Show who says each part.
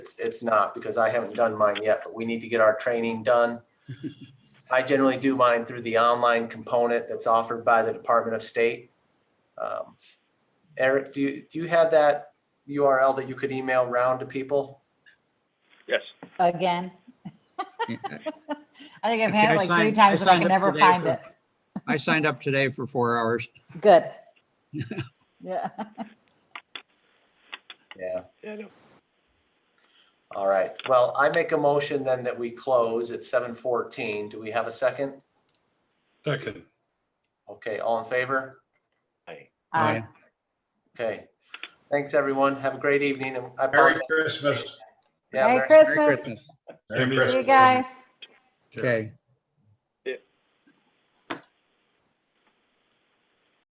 Speaker 1: It's, it's not because I haven't done mine yet, but we need to get our training done. I generally do mine through the online component that's offered by the Department of State. Um, Eric, do you, do you have that URL that you could email round to people?
Speaker 2: Yes.
Speaker 3: again.
Speaker 4: Yeah,
Speaker 3: I think I've
Speaker 4: Okay,
Speaker 3: had
Speaker 4: I
Speaker 3: it like three
Speaker 4: signed-
Speaker 3: times and I
Speaker 4: signed
Speaker 3: can
Speaker 4: up
Speaker 3: never
Speaker 4: today
Speaker 3: find
Speaker 4: for-
Speaker 3: it.
Speaker 4: I signed up today for four hours.
Speaker 3: Good.
Speaker 4: Oh,
Speaker 3: Yeah.
Speaker 1: Yeah,
Speaker 2: Yeah, no.
Speaker 1: all right. Well, I make a motion then that we close at seven fourteen. Do we have a second?
Speaker 5: Second,
Speaker 1: Okay, all in favor?
Speaker 3: I
Speaker 1: Okay. Thanks, everyone. Have a great evening. and I
Speaker 6: Merry
Speaker 1: apologize.
Speaker 6: Christmas.
Speaker 1: Yeah,
Speaker 3: Merry
Speaker 1: Merry-
Speaker 4: Merry
Speaker 3: Christmas.
Speaker 4: Christmas.
Speaker 5: Merry
Speaker 3: See you
Speaker 5: Christmas.
Speaker 3: guys.
Speaker 4: Okay,